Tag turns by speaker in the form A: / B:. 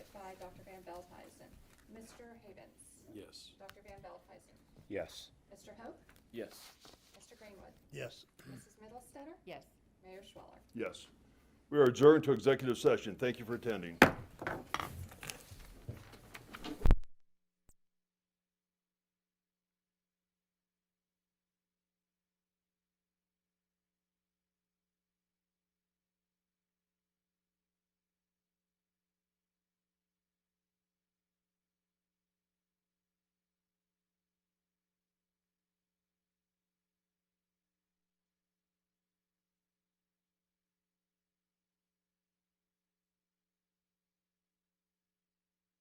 A: Dr. Van Veldhuizen. Mr. Havens.
B: Yes.
A: Dr. Van Veldhuizen.
C: Yes.
A: Mr. Hope.
B: Yes.
A: Mr. Greenwood.
D: Yes.
A: Mrs. Middlestetter.
E: Yes.
A: Mayor Schwaller.
F: Yes. We are adjourned to executive session. Thank you for attending.